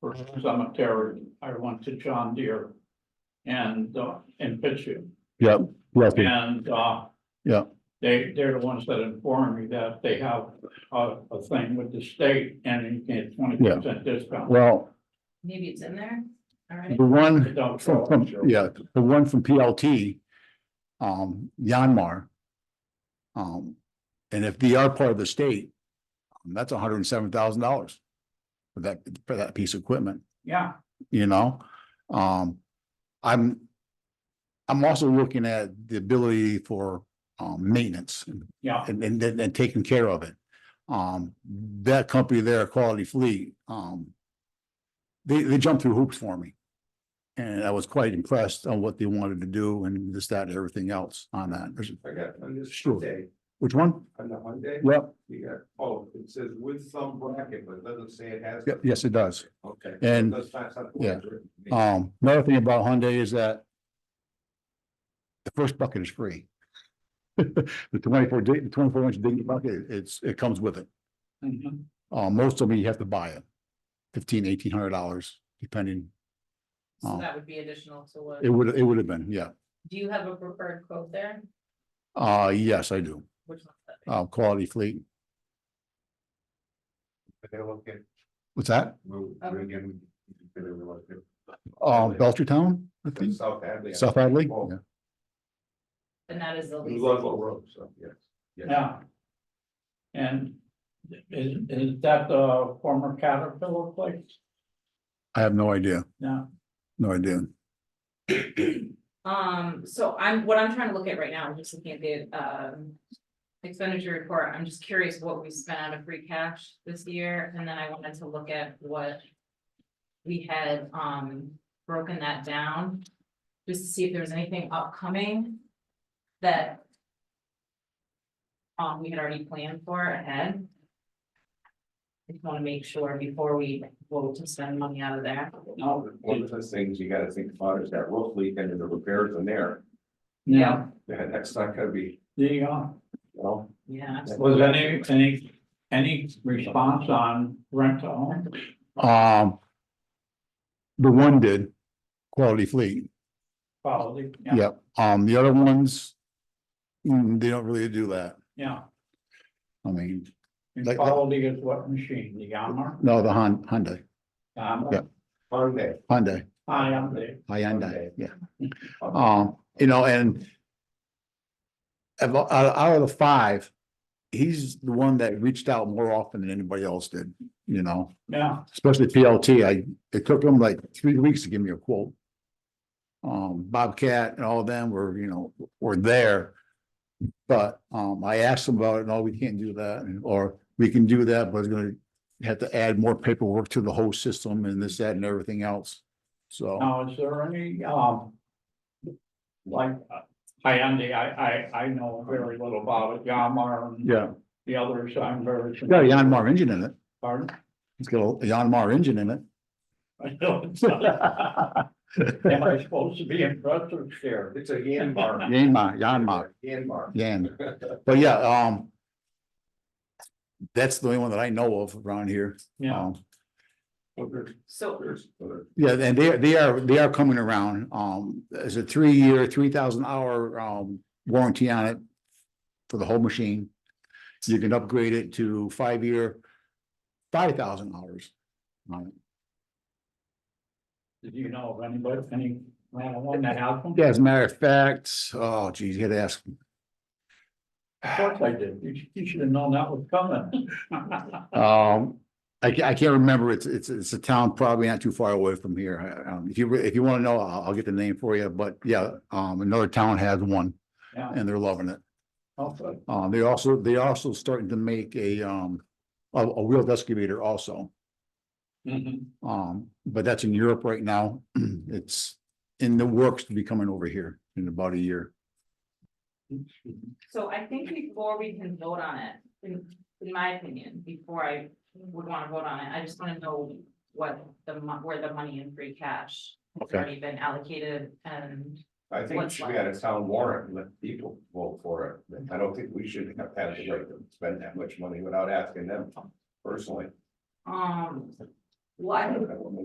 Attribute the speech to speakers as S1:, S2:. S1: for Summit Terry, I went to John Deere. And, uh, in Pittsfield,
S2: Yep, Ruffy.
S1: and, uh.
S2: Yeah.
S1: They, they're the ones that informed me that they have a, a thing with the state and you get twenty percent discount.
S2: Well,
S3: Maybe it's in there, all right.
S2: the
S1: It
S2: one
S1: don't
S2: from,
S1: show
S2: from,
S1: up, so-
S2: yeah, the one from PLT, um, Yanmar. Um, and if they are part of the state, um, that's hundred and seven thousand dollars for that, for that piece of equipment.
S1: Yeah,
S2: you know? Um, I'm, I'm also looking at the ability for, um, maintenance
S1: yeah,
S2: and, and, and and taking care of it. Um, that company there, Quality Fleet, um, they, they jumped through hoops for me. And I was quite impressed on what they wanted to do and this, that, and everything else on that. There's-
S4: I got on this
S2: Sure.
S4: day,
S2: Which one?
S4: on the Hyundai,
S2: Yep,
S4: you got, oh, it says with some bracket, but it doesn't say it has.
S2: Yep, yes, it does.
S4: Okay.
S2: And,
S4: That's not something.
S2: yeah. um, another thing about Hyundai is that the first bucket is free. The twenty-four, di- the twenty-four inch digging bucket, it's, it comes with it.
S1: mhm,
S2: Uh, most of them, you have to buy it. Fifteen, eighteen hundred dollars, depending.
S3: So
S2: Oh.
S3: that would be additional to what,
S2: It would, it would have been, yeah.
S3: do you have a preferred quote there?
S2: Uh, yes, I do.
S3: Which one's that?
S2: Uh, Quality Fleet.
S4: They're looking,
S2: What's that?
S4: we're, we're again. they're looking
S2: Um, Belchertown, I
S4: for
S2: think,
S4: South Hadley.
S2: South Hadley?
S4: Oh.
S2: Yeah.
S3: And that is the
S4: It was
S3: least.
S4: Ludlow Road, so, yes.
S1: yeah. And is, is that the former Caterpillar place?
S2: I have no idea,
S1: Yeah,
S2: no idea.
S3: Um, so I'm, what I'm trying to look at right now, I'm just looking at the, um. Expenditure report, I'm just curious what we spent out of free cash this year, and then I wanted to look at what. We had, um, broken that down, just to see if there was anything upcoming that. Um, we had already planned for ahead. I just wanna make sure before we vote to spend money out of there.
S4: Oh.
S1: no,
S4: One of the things you gotta think about is that roof leak and the repairs in there,
S1: yeah,
S4: Yeah, that's not gonna be,
S1: the, uh,
S4: you know.
S3: Yeah,
S1: Was any, any, any response on rent to own?
S2: Um, the one did, Quality Fleet,
S1: Quality, yeah,
S2: yep. Um, the other ones, mm, they don't really do that.
S1: yeah.
S2: I mean,
S1: And
S2: Like-
S1: quality is what machine, the Yamaha?
S2: no, the Hon- Hyundai, Yeah.
S1: Yamaha,
S4: Hyundai.
S2: Hyundai,
S1: I am the,
S2: Hyundai, yeah.
S4: um,
S2: Um, you know, and of- out, out of the five, he's the one that reached out more often than anybody else did, you know,
S1: yeah,
S2: especially PLT. I, it took him like three weeks to give me a quote. Um, Bobcat and all of them were, you know, were there. But, um, I asked them about it, no, we can't do that, and- or we can do that, but it's gonna have to add more paperwork to the whole system and this, that, and everything else. So,
S1: now, is there any, um. Like, uh, Hyundai, I, I, I know very little about it, Yamaha and
S2: yeah,
S1: the others, I'm very.
S2: it's got a Yanmar engine in it.
S1: Pardon?
S2: It's got a Yanmar engine in it.
S1: I know it's not. Am I supposed to be impressed or scared?
S4: It's a Yanmar.
S2: Yanmar, Yanmar,
S4: Yanmar.
S2: Yan. But yeah, um. That's the only one that I know of around here.
S1: Yeah,
S2: Um,
S4: Well, there's-
S3: so
S4: there's other-
S2: Yeah, and they, they are, they are coming around. Um, there's a three-year, three thousand hour, um, warranty on it. For the whole machine. You can upgrade it to five-year, five thousand hours. on it.
S1: did you know of anybody, any, one that has one?
S2: Yeah, as a matter of fact, oh geez, you had to ask.
S1: Of course I did. You, sh- you should have known that was coming.
S2: Um, I ca- I can't remember, it's, it's, it's a town probably not too far away from here, um, if you, re- if you wanna know, I'll, I'll get the name for you, but yeah, um, another town has one.
S1: Yeah.
S2: And they're loving it,
S1: Also,
S2: uh, they also, they also starting to make a, um, a, a wheeled excavator also.
S1: mhm,
S2: Um, but that's in Europe right now, it's in the works to be coming over here in about a year.
S3: So I think before we can vote on it, in, in my opinion, before I would wanna vote on it, I just wanna know what the mon- where the money in free cash has
S2: Okay.
S3: already been allocated and,
S4: I think it
S3: What's
S4: should
S3: left?
S4: be on a town warrant, and let people vote for it, I don't think we should have had the right to spend that much money without asking them personally.
S3: um, well, I
S4: I
S3: think
S4: don't know.